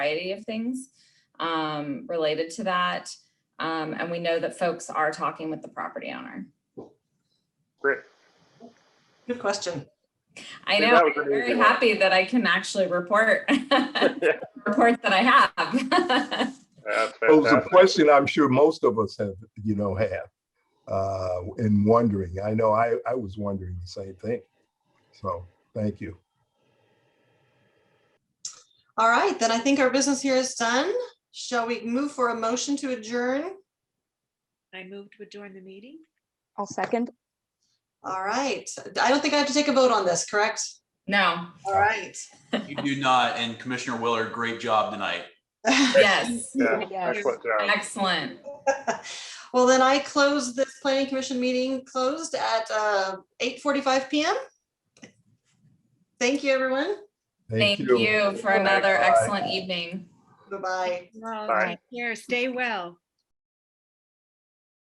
variety of things um, related to that. Um, and we know that folks are talking with the property owner. Great. Good question. I Yeah, know, that was I'm an very easy one. happy that I can actually report, That's report that I have. It was a fantastic. question I'm sure most of us have, you know, have, uh, in wondering. I know I, I was wondering the same thing. So, thank you. All right, then I think our business here is done. Shall we move for a motion to adjourn? I moved to adjourn the meeting. I'll second. All right, I don't think I have to take a vote on this, correct? No, All right. You do not. And Commissioner Willard, great job tonight. yes, Yeah, Yes. excellent job. excellent. Well, then I close this planning commission meeting closed at uh, 8:45 PM. Thank you, everyone. Thank you for Bye. another Bye. excellent evening. Bye-bye. No, Bye. take care. Stay well.